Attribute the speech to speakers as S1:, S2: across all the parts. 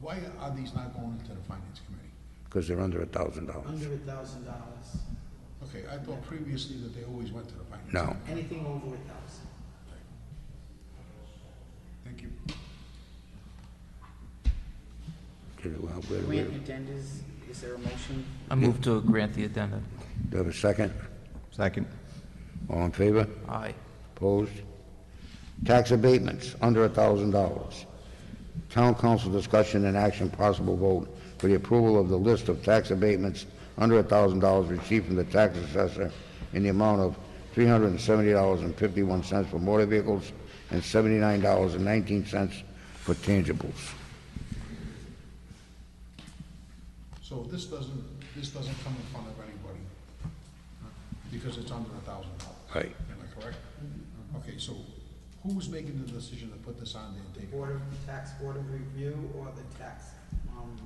S1: Why are these not going into the finance committee?
S2: because they're under a thousand dollars.
S3: under a thousand dollars,
S1: Okay, I thought previously that they always went to the finance.
S2: No.
S1: committee.
S3: anything over a thousand.
S1: Thank you.
S2: Okay, well, wait, wait.
S4: Grant agendas, is there a motion?
S5: I move to grant the addendum.
S2: Do I have a second?
S6: Second.
S2: All in favor?
S5: Aye.
S2: Opposed? Tax abatements, under a thousand dollars. Town council discussion and action, possible vote for the approval of the list of tax abatements under a thousand dollars received from the tax assessor in the amount of three hundred and seventy dollars and fifty-one cents for motor vehicles and seventy-nine dollars and nineteen cents for tangibles.
S1: So this doesn't, this doesn't come in front of anybody, huh? because it's under a thousand dollars.
S2: Right.
S1: Am I correct? Okay, so who's making the decision to put this on there, David?
S3: Board of, tax board of review or the tax, um,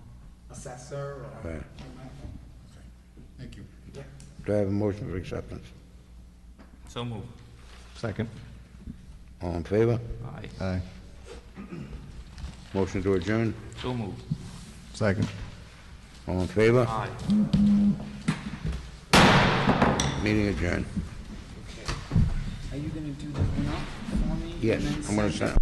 S3: assessor or.
S2: Right.
S1: Okay, thank you.
S3: Yeah.
S2: Do I have a motion for acceptance?
S5: So moved.
S6: Second.
S2: All in favor?
S5: Aye.
S6: Aye.
S2: Motion to adjourn?
S5: So moved.
S6: Second.
S2: All in favor?
S5: Aye.
S2: Meeting adjourned.
S4: Are you gonna do the one up for me?
S2: Yes,
S4: and then
S2: I'm gonna
S4: send-
S2: sign.